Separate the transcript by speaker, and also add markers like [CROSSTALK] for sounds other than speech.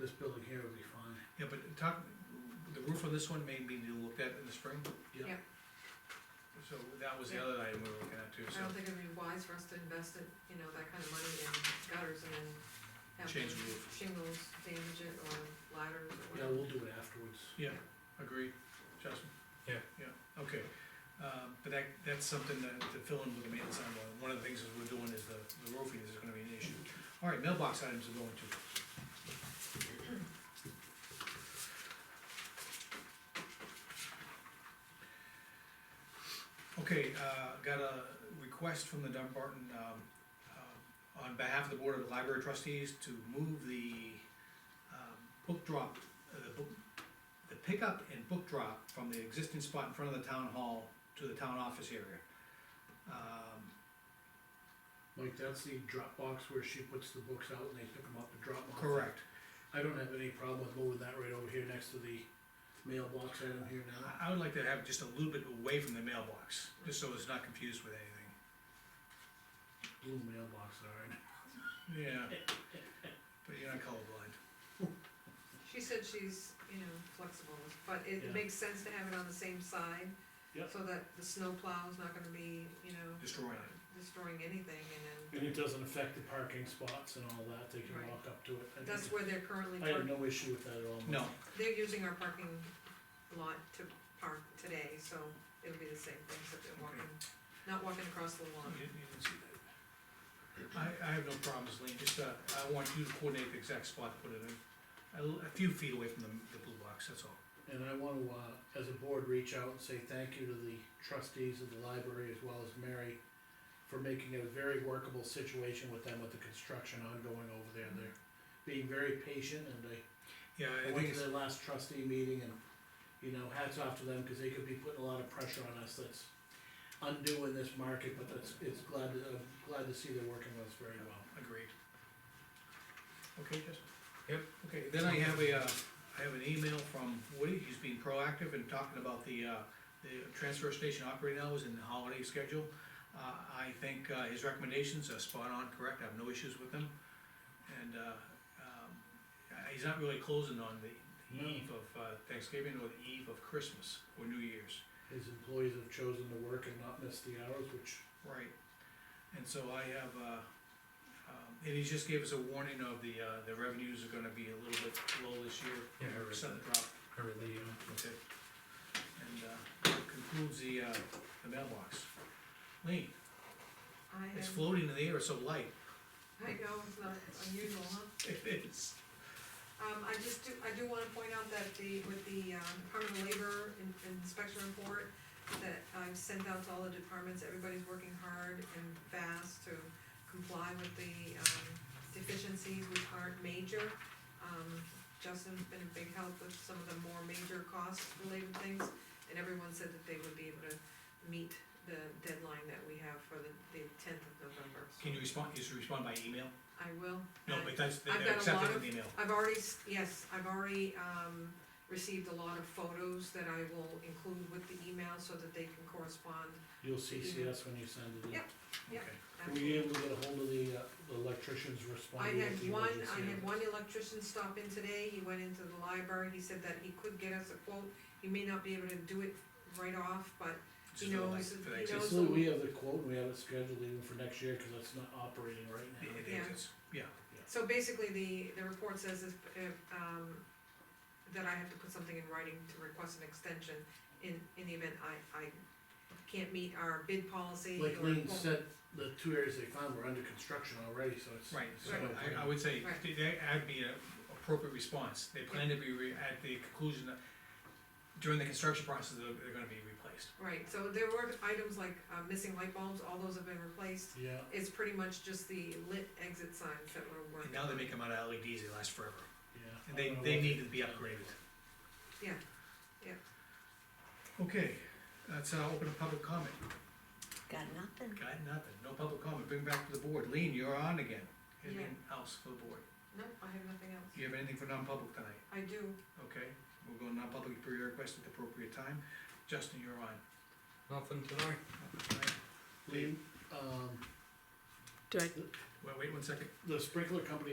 Speaker 1: this building here would be fine.
Speaker 2: Yeah, but talk, the roof on this one may be looked at in the spring,
Speaker 1: Yeah.
Speaker 2: so that was the other item we were looking at too,
Speaker 3: I
Speaker 2: so
Speaker 3: don't think it'd be wise for us to invest it, you know, that kind of money in gutters and then have
Speaker 2: Change
Speaker 3: them
Speaker 2: the roof.
Speaker 3: shingles damage it or ladders or
Speaker 1: Yeah,
Speaker 3: whatever.
Speaker 1: we'll do it afterwards.
Speaker 2: agreed, Justin?
Speaker 4: Yeah.
Speaker 2: Yeah, okay, um, but that, that's something that, to fill in with the maintenance on, uh, one of the things that we're doing is the, the roofing is gonna be an issue. All right, mailbox items are going to, Okay, uh, got a request from the Dunbarton, um, uh, on behalf of the Board of Library Trustees to move the, um, book drop, uh, the book, the pickup and book drop from the existing spot in front of the town hall to the town office area. Um,
Speaker 1: Mike, that's the drop box where she puts the books out and they pick them up and drop them off.
Speaker 2: correct,
Speaker 1: I don't have any problem with moving that right over here next to the mailbox item here now.
Speaker 2: I, I would like to have just a little bit away from the mailbox, just so it's not confused with anything.
Speaker 1: Blue mailbox, alright.
Speaker 2: Yeah. But you're not colorblind.
Speaker 3: She said she's, you know, flexible, but
Speaker 1: Yeah.
Speaker 3: it makes sense to have it on the same side.
Speaker 4: Yeah.
Speaker 3: So that the snow plow's not gonna be, you know,
Speaker 2: Destroying it.
Speaker 3: destroying anything and then,
Speaker 1: And it doesn't affect the parking spots and all that, they can
Speaker 3: Right.
Speaker 1: walk up to it. I
Speaker 3: that's
Speaker 1: think-
Speaker 3: where they're currently
Speaker 1: I have
Speaker 3: parking.
Speaker 1: no issue with that at all. Mike.
Speaker 2: No,
Speaker 3: They're using our parking lot to park today, so it'll be the same thing, except they're walking, not walking across the lawn.
Speaker 2: you- you didn't see that. I, I have no problems, Lean, just, uh, I want you to coordinate the exact spot to put it in. A, l- a few feet away from the, the blue box, that's all.
Speaker 1: And I wanna, uh, as a board, reach out and say thank you to the trustees of the library as well as Mary for making it a very workable situation with them with the construction ongoing over there, they're being very patient and they
Speaker 2: Yeah,
Speaker 1: I
Speaker 2: Mm-hmm. I
Speaker 1: went
Speaker 2: think
Speaker 1: to
Speaker 2: it's,
Speaker 1: their last trustee meeting and, you know, hats off to them, cause they could be putting a lot of pressure on us that's undue in this market, but it's, it's glad, to- I'm glad to see they're working with us very well.
Speaker 2: agreed. Okay, Justin?
Speaker 4: Yep.
Speaker 2: Okay, then I have a, uh, I have an email from Woody, he's been proactive in talking about the, uh, the transfer station operating hours and the holiday schedule. Uh, I think, uh, his recommendations are spot on, correct, I have no issues with them. And, uh, um, uh, he's not really closing on the
Speaker 4: No.
Speaker 2: eve of uh, Thanksgiving or the eve of Christmas or New Year's.
Speaker 1: His employees have chosen to work and not miss the hours, which,
Speaker 2: Right, and so I have, uh, um, and he just gave us a warning of the, uh, the revenues are gonna be a little bit low this year.
Speaker 4: Yeah, I read that.
Speaker 2: Percent drop
Speaker 4: I really, uh,
Speaker 2: Okay. And, uh, that concludes the, uh, the mailbox. Lean,
Speaker 3: I
Speaker 2: it's
Speaker 3: have-
Speaker 2: floating in the air, it's so light. [LAUGHS]
Speaker 3: I know, it's not unusual, huh?
Speaker 2: It is.
Speaker 3: Um, I just do, I do wanna point out that the, with the, um, Department of Labor in- inspection report that I've sent out to all the departments, everybody's working hard and fast to comply with the, um, deficiencies which aren't major. Um, Justin's been a big help with some of the more major cost related things, and everyone said that they would be able to meet the deadline that we have for the, the tenth of November. So
Speaker 2: Can you respond, just respond by email?
Speaker 3: I will.
Speaker 2: No,
Speaker 3: I-
Speaker 2: but that's,
Speaker 3: Uh, I've got
Speaker 2: they're
Speaker 3: a lot
Speaker 2: accepted
Speaker 3: of-
Speaker 2: in email.
Speaker 3: I've already, s- yes, I've already, um, received a lot of photos that I will include with the email so that they can correspond.
Speaker 1: you'll CC us when you send it in.
Speaker 3: Yep. Yeah.
Speaker 2: Okay.
Speaker 1: Were you able to get a hold of the, uh, the electricians
Speaker 3: I
Speaker 1: responding? with
Speaker 3: had
Speaker 1: the
Speaker 3: one,
Speaker 1: emergency
Speaker 3: I had
Speaker 1: notice?
Speaker 3: one electrician stop in today, he went into the library, he said that he could get us a quote, he may not be able to do it right off, but
Speaker 2: Just
Speaker 3: he
Speaker 2: for the
Speaker 3: knows,
Speaker 2: next-
Speaker 3: he
Speaker 2: for the next-
Speaker 3: knows-
Speaker 1: Basically, we have the quote, and we have it scheduled even for next year, cause it's not operating right
Speaker 2: it-
Speaker 1: now.
Speaker 2: it-
Speaker 3: Yeah.
Speaker 2: it's- Yeah,
Speaker 3: So basically, the, the report says is, if, um, that I have to put something in writing to request an extension in, in the event I, I can't meet our bid policy.
Speaker 1: Like
Speaker 3: or-
Speaker 1: Lean said, the two areas they found were under construction already, so it's.
Speaker 2: right, so
Speaker 1: Right.
Speaker 2: I, I would say,
Speaker 3: Right.
Speaker 2: th- that'd be an appropriate response. They plan to be re, at the conclusion of, during the construction process, they're, they're gonna be replaced.
Speaker 3: Right, so there were items like, uh, missing light bulbs, all those have been replaced,
Speaker 1: Yeah,
Speaker 3: it's pretty much just the lit exit signs that were
Speaker 2: And
Speaker 3: working.
Speaker 2: now they
Speaker 3: on.
Speaker 2: make them out of LEDs, they last forever.
Speaker 1: yeah.
Speaker 2: And
Speaker 1: I
Speaker 2: they,
Speaker 1: don't know
Speaker 2: they
Speaker 1: what-
Speaker 2: need to be upgraded.
Speaker 3: Yeah, yeah.
Speaker 2: Okay, that's, uh, open a public comment.
Speaker 5: Got nothing.
Speaker 2: Got nothing, no public comment, bring back to the board, Lean, you're on again. Anything else for the board?
Speaker 3: No, I have nothing else,
Speaker 2: Do you have anything for non-public tonight?
Speaker 3: I do,
Speaker 2: Okay, we'll go non-public per your request at the appropriate time. Justin, you're on.
Speaker 4: uh, nothing tonight.
Speaker 1: Lean, um,
Speaker 5: Do I
Speaker 2: Wait, wait one second.
Speaker 1: the sprinkler company